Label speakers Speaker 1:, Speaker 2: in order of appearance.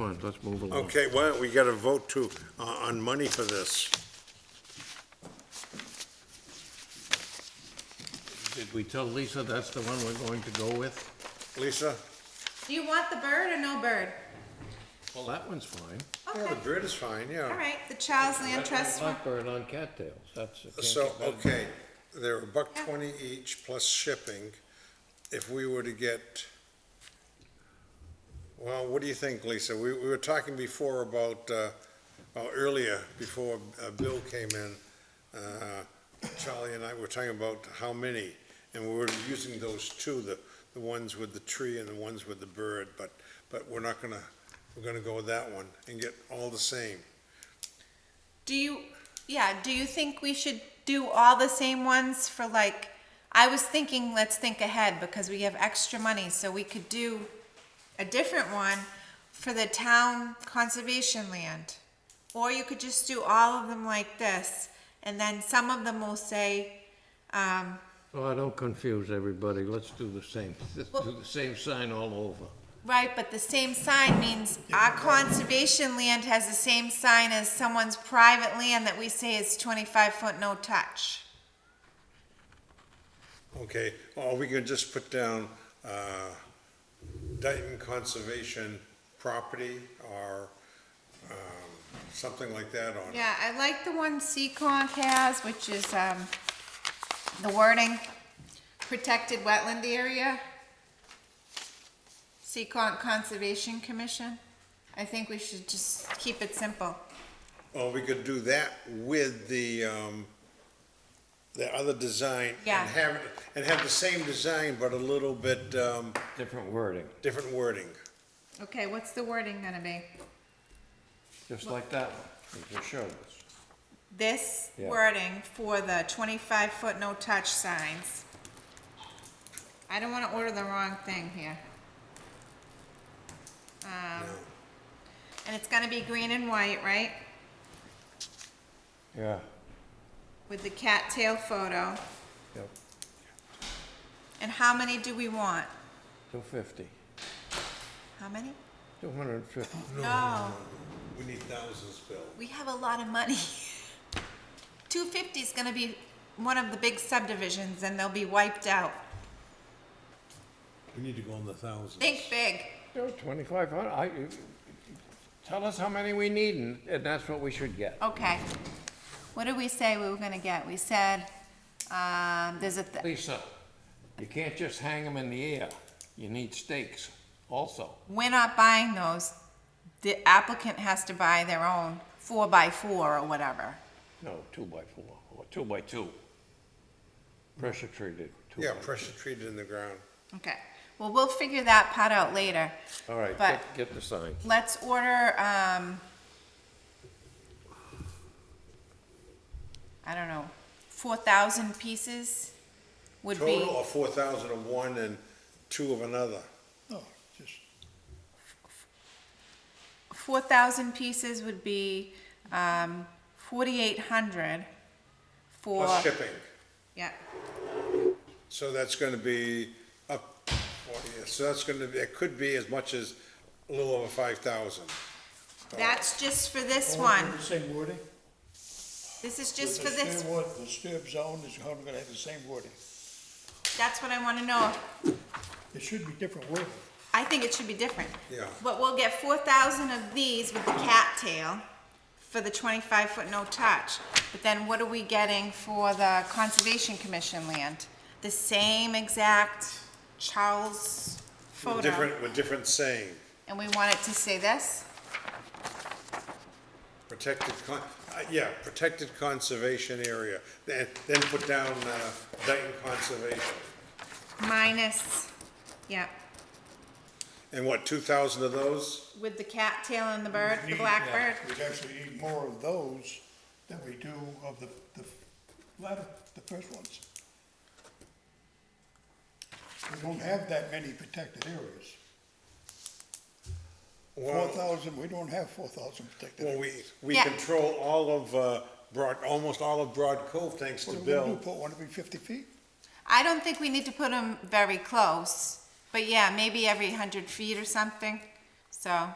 Speaker 1: on, let's move along.
Speaker 2: Okay, well, we got to vote to, uh, on money for this.
Speaker 1: Did we tell Lisa that's the one we're going to go with?
Speaker 2: Lisa?
Speaker 3: Do you want the bird or no bird?
Speaker 1: Well, that one's fine.
Speaker 2: Yeah,
Speaker 3: Okay,
Speaker 2: the bird is fine,
Speaker 3: all
Speaker 2: yeah.
Speaker 3: right, the Child's Land Trust. one.
Speaker 1: Blackbird on cattails, that's. it can't
Speaker 2: So,
Speaker 1: get better than
Speaker 2: okay, they're a buck twenty each plus shipping. If we were to get, well, what do you think, Lisa? We, we were talking before about, uh, well, earlier, before uh, Bill came in, uh, Charlie and I were talking about how many, and we were using those two, the, the ones with the tree and the ones with the bird, but, but we're not gonna, we're gonna go with that one and get all the same.
Speaker 3: Do you, yeah, do you think we should do all the same ones for like, I was thinking, let's think ahead because we have extra money, so we could do a different one for the town conservation land. Or you could just do all of them like this, and then some of them will say, um,
Speaker 1: Oh, don't confuse everybody, let's do the same, let's do
Speaker 3: Well-
Speaker 1: the same sign all over.
Speaker 3: Right, but the same sign means our conservation land has the same sign as someone's private land that we say is twenty-five foot no touch.
Speaker 2: Okay, or we can just put down, uh, Dayton Conservation Property or, um, something like that on it.
Speaker 3: Yeah, I like the one Seacon has, which is, um, the wording, protected wetland area. Seacon Conservation Commission. I think we should just keep it simple.
Speaker 2: Or we could do that with the, um, the other design.
Speaker 3: Yeah.
Speaker 2: And have, and have the same design, but a little bit, um,
Speaker 1: Different wording,
Speaker 2: different wording.
Speaker 3: Okay, what's the wording gonna be?
Speaker 1: just like that one, you just showed us.
Speaker 3: This
Speaker 1: Yeah.
Speaker 3: wording for the twenty-five foot no touch signs. I don't wanna order the wrong thing here. Um, and it's gonna be green and white, right?
Speaker 1: Yeah,
Speaker 3: With the cattail photo.
Speaker 1: yep,
Speaker 3: And how many do we want?
Speaker 1: two fifty,
Speaker 3: How many?
Speaker 1: two hundred and fifty.
Speaker 3: No,
Speaker 2: We need thousands, Bill.
Speaker 3: we have a lot of money. Two fifty is gonna be one of the big subdivisions and they'll be wiped out.
Speaker 2: We need to go in the thousands.
Speaker 3: Think big.
Speaker 1: No, twenty-five hundred, I, you- tell us how many we need and, and that's what we should get.
Speaker 3: Okay. What did we say we were gonna get? We said, um, there's a, th-
Speaker 1: Lisa, you can't just hang them in the air, you need stakes also.
Speaker 3: we're not buying those. The applicant has to buy their own four by four or whatever.
Speaker 1: No, two by four, or two by two. Pressure treated. two
Speaker 2: Yeah,
Speaker 1: by-
Speaker 2: pressure treated in the ground.
Speaker 3: Okay. Well, we'll figure that part out later.
Speaker 1: All right,
Speaker 3: But
Speaker 1: get, get the sign.
Speaker 3: let's order, um, I don't know, four thousand pieces would be.
Speaker 2: Total of four thousand of one and two of another.
Speaker 4: No, just,
Speaker 3: four thousand pieces would be, um, forty-eight hundred for,
Speaker 2: Plus shipping.
Speaker 3: yeah,
Speaker 2: So that's gonna be up, well, yeah, so that's gonna, be it could be as much as a little over five thousand.
Speaker 3: that's just for this
Speaker 4: all under
Speaker 3: one,
Speaker 4: the same wording?
Speaker 3: this is just
Speaker 4: The
Speaker 3: for this,
Speaker 4: same word, The Disturb zone is going to have the same wording.
Speaker 3: that's what I wanna know,
Speaker 4: It should be different wording.
Speaker 3: I think it should be different.
Speaker 2: Yeah.
Speaker 3: But we'll get four thousand of these with the cattail for the twenty-five foot no touch, but then what are we getting for the Conservation Commission land? The same exact Charles photo,
Speaker 2: Different, with different saying,
Speaker 3: and we want it to say this?
Speaker 2: protected con, uh, yeah, protected conservation area. Then, then put down, uh, Dayton Conservation.
Speaker 3: Minus, yeah,
Speaker 2: And what, two thousand of those?
Speaker 3: with the cattail and the bird, the
Speaker 4: Need-
Speaker 3: blackbird.
Speaker 4: We'd actually need more of those than we do of the, the latter, the first ones. We don't have that many protected areas. Four
Speaker 2: Well,
Speaker 4: thousand, we don't have four thousand protected.
Speaker 2: well,
Speaker 4: areas.
Speaker 2: we, we
Speaker 3: Yeah.
Speaker 2: control all of, uh, Broad, almost all of Broad Cove thanks to
Speaker 4: What do we do,
Speaker 2: Bill.
Speaker 4: put one every fifty feet?
Speaker 3: I don't think we need to put them very close, but yeah, maybe every hundred feet or something, so.